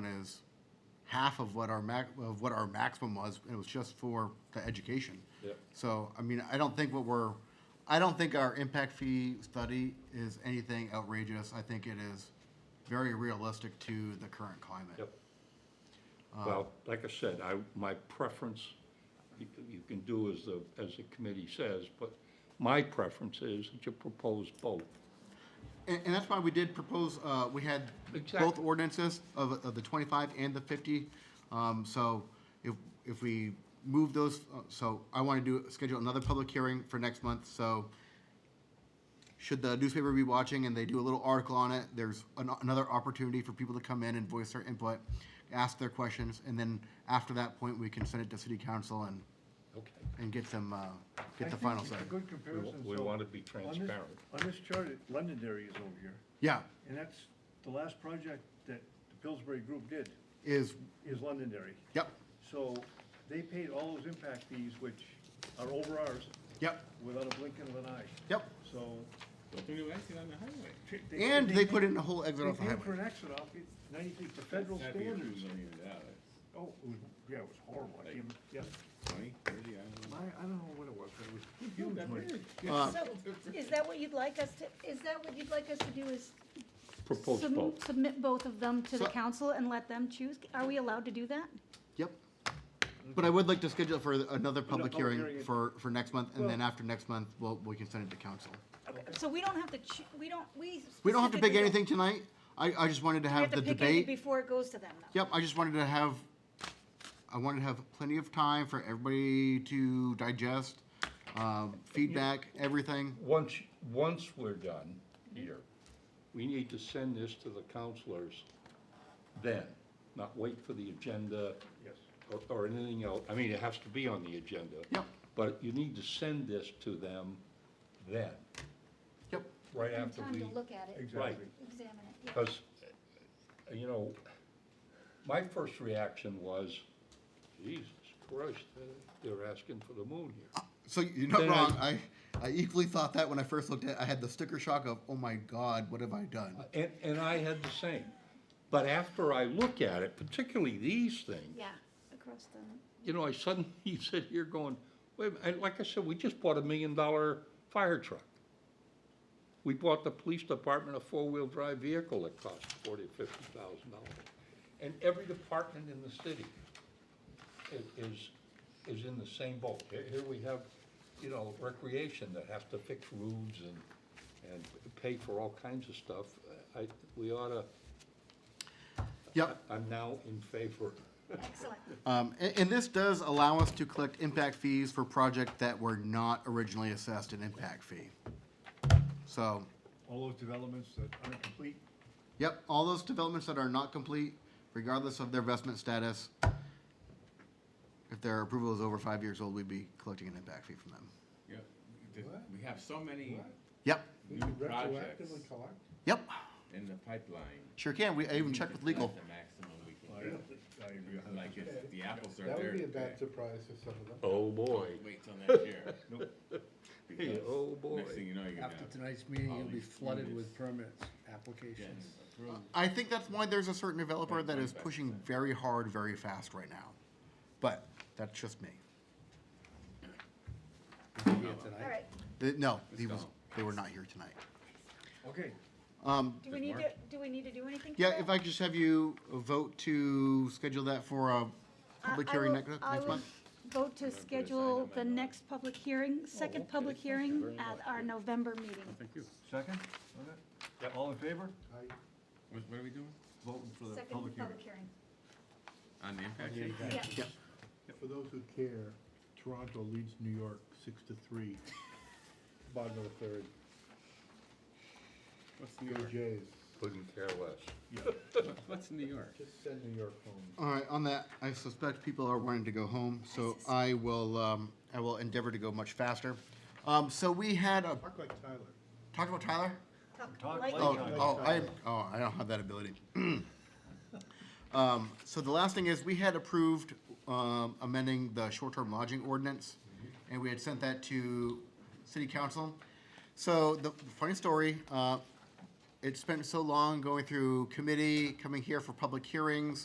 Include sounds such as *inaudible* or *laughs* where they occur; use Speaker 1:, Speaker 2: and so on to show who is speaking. Speaker 1: down as half of what our max, of what our maximum was, and it was just for the education.
Speaker 2: Yep.
Speaker 1: So, I mean, I don't think what we're, I don't think our impact fee study is anything outrageous. I think it is very realistic to the current climate.
Speaker 2: Yep. Well, like I said, I, my preference, you, c- you can do as the, as the committee says, but my preference is that you propose both.
Speaker 1: And, and that's why we did propose, uh, we had both
Speaker 2: Exactly.
Speaker 1: ordinances of, of the twenty-five and the fifty. Um, so if, if we move those, uh, so I want to do, schedule another public hearing for next month, so should the newspaper be watching and they do a little article on it, there's an, another opportunity for people to come in and voice their input, ask their questions, and then after that point, we can send it to city council and,
Speaker 2: Okay.
Speaker 1: and get them, uh, get the
Speaker 3: I think
Speaker 1: final
Speaker 3: it's
Speaker 1: say.
Speaker 3: a good
Speaker 2: We wa-
Speaker 3: comparison.
Speaker 2: We
Speaker 3: So
Speaker 2: want to be
Speaker 3: on this-
Speaker 2: transparent.
Speaker 3: On this chart, it- Londonderry is over here,
Speaker 1: Yeah,
Speaker 3: and that's the last project that the Pillsbury Group did,
Speaker 1: is,
Speaker 3: is Londonderry.
Speaker 1: yep,
Speaker 3: So they paid all those impact fees, which are over ours,
Speaker 1: yep,
Speaker 3: without a blink of an eye.
Speaker 1: yep.
Speaker 3: So.
Speaker 4: But they're acting on the highway.
Speaker 1: And they put in a whole exit
Speaker 3: They
Speaker 1: off the
Speaker 3: paid for
Speaker 1: highway.
Speaker 3: an exit off, it- ninety feet for federal
Speaker 4: That'd be a few
Speaker 3: standards.
Speaker 4: million dollars.
Speaker 3: Oh, it was, yeah, it was horrible, I can't, yeah,
Speaker 4: Twenty, thirty, I don't
Speaker 3: I,
Speaker 4: know.
Speaker 3: I don't know what it was, but it was
Speaker 4: Not
Speaker 3: huge
Speaker 4: that
Speaker 3: money.
Speaker 4: big.
Speaker 1: Uh,
Speaker 5: So, is that what you'd like us to, is that what you'd like us to do is
Speaker 2: Propose
Speaker 5: sub-
Speaker 2: both.
Speaker 5: submit both of them to the
Speaker 1: So-
Speaker 5: council and let them choose? Are we allowed to do that?
Speaker 1: Yep. But I would like to schedule for another public
Speaker 3: public
Speaker 1: hearing
Speaker 3: hearing.
Speaker 1: for, for next month, and then
Speaker 3: Well-
Speaker 1: after next month, we'll, we can send it to council.
Speaker 5: So we don't have to, choo- we don't, we.
Speaker 1: We don't have to pick
Speaker 5: specifically don't-
Speaker 1: anything tonight. I, I just wanted to
Speaker 5: We
Speaker 1: have the
Speaker 5: to pick any
Speaker 1: debate.
Speaker 5: before it goes to them, though.
Speaker 1: Yep, I just wanted to have, I wanted to have plenty of time for everybody to digest, um, feedback, everything.
Speaker 2: Once, once we're done here, we need to send this to the counselors then, not wait for the agenda.
Speaker 3: Yes.
Speaker 2: or, or anything else, I mean, it has to be on the agenda.
Speaker 1: Yep.
Speaker 2: But you need to send this to them then,
Speaker 1: Yep.
Speaker 2: right after we,
Speaker 6: Time to look at it,
Speaker 2: right,
Speaker 3: Exactly.
Speaker 6: examine it, yeah.
Speaker 2: because, you know, my first reaction was, Jesus Christ, uh, they're asking for the moon here.
Speaker 1: So you're not
Speaker 2: Then I-
Speaker 1: wrong. I, I equally thought that when I first looked at, it. I had the sticker shock of, oh my God, what have I done?
Speaker 2: And, and I had the same, but after I look at it, particularly these things,
Speaker 6: Yeah, across the,
Speaker 2: you know, I suddenly *laughs* sit here going, wait, a minute," and like I said, we just bought a million dollar fire truck. We bought the police department a four-wheel drive vehicle that cost forty, fifty thousand dollars. And every department in the city i- is, is in the same boat. Here here we have, you know, recreation that have to fix roofs and, and pay for all kinds of stuff. I, we oughta,
Speaker 1: Yep.
Speaker 2: I'm now in favor.
Speaker 6: excellent.
Speaker 1: Um, a- and, this does allow us to collect impact fees for projects that were not originally assessed an impact fee. So,
Speaker 3: All those developments that aren't complete,
Speaker 1: yep, all those developments that are not complete, regardless of their investment status, if their approval is over five years old, we'd be collecting an impact fee from them.
Speaker 4: Yeah, the- we have so many
Speaker 1: Yep,
Speaker 4: new projects
Speaker 1: yep,
Speaker 4: in the pipeline.
Speaker 1: sure can. We, I even
Speaker 4: We
Speaker 1: checked
Speaker 4: could
Speaker 1: with legal.
Speaker 4: collect The maximum we can
Speaker 3: I,
Speaker 4: get.
Speaker 3: I agree.
Speaker 4: Like if the apples are there.
Speaker 7: That would be a
Speaker 4: today,
Speaker 7: bad surprise for some of them.
Speaker 2: Oh, boy.
Speaker 4: don't Wait till next year.
Speaker 2: Hey,
Speaker 4: Because
Speaker 2: oh, boy.
Speaker 4: Next thing you know, you're gonna
Speaker 7: After
Speaker 4: have.
Speaker 7: tonight's meeting,
Speaker 4: all
Speaker 7: you'll be
Speaker 4: these
Speaker 7: flooded
Speaker 4: units.
Speaker 7: with permits, applications.
Speaker 4: Yes, approved.
Speaker 1: I think that's why there's a certain developer that is pushing very hard, very fast right now. But that's just me.
Speaker 7: You'll be here tonight.
Speaker 5: All right,
Speaker 1: Th- No, he was,
Speaker 4: go.
Speaker 1: they were not here tonight.
Speaker 3: Okay,
Speaker 1: Um,
Speaker 5: do we need to, do we need to do anything? for
Speaker 1: Yeah,
Speaker 5: that?
Speaker 1: if I could just have you vote to schedule that for a
Speaker 5: I-
Speaker 1: public
Speaker 5: I
Speaker 1: hearing
Speaker 5: will-
Speaker 1: next,
Speaker 5: I
Speaker 1: next
Speaker 5: will
Speaker 1: month?
Speaker 5: Vote to schedule the next public hearing, second public hearing
Speaker 4: very
Speaker 5: at our November meeting.
Speaker 4: Thank you.
Speaker 3: second, on that? All in favor?
Speaker 4: What, what are we doing?
Speaker 3: Voting for the
Speaker 5: Second
Speaker 3: public hearing.
Speaker 5: public hearing.
Speaker 4: On the impact
Speaker 7: Yeah,
Speaker 4: fee?
Speaker 7: you got it.
Speaker 5: Yeah.
Speaker 8: For those who care, Toronto leads New York six to three, bottom of the third.
Speaker 4: What's
Speaker 8: Go
Speaker 4: New York?
Speaker 8: Jays.
Speaker 2: Couldn't care less.
Speaker 4: *laughs* What's New York?
Speaker 8: Just send New York home.
Speaker 1: All right, on that, I suspect people are wanting to go home, so I will, um, I will endeavor to go much faster. Um, so we had a,
Speaker 8: Talk like Tyler.
Speaker 1: talked about Tyler?
Speaker 3: Talk
Speaker 5: Lightning.
Speaker 3: like
Speaker 1: Oh,
Speaker 3: Tyler.
Speaker 1: oh, I, oh, I don't have that ability. *clears throat* Um, so the last thing is, we had approved, um, amending the short-term lodging ordinance, and we had sent that to city council. So the funny story, uh, it spent so long going through committee, coming here for public hearings,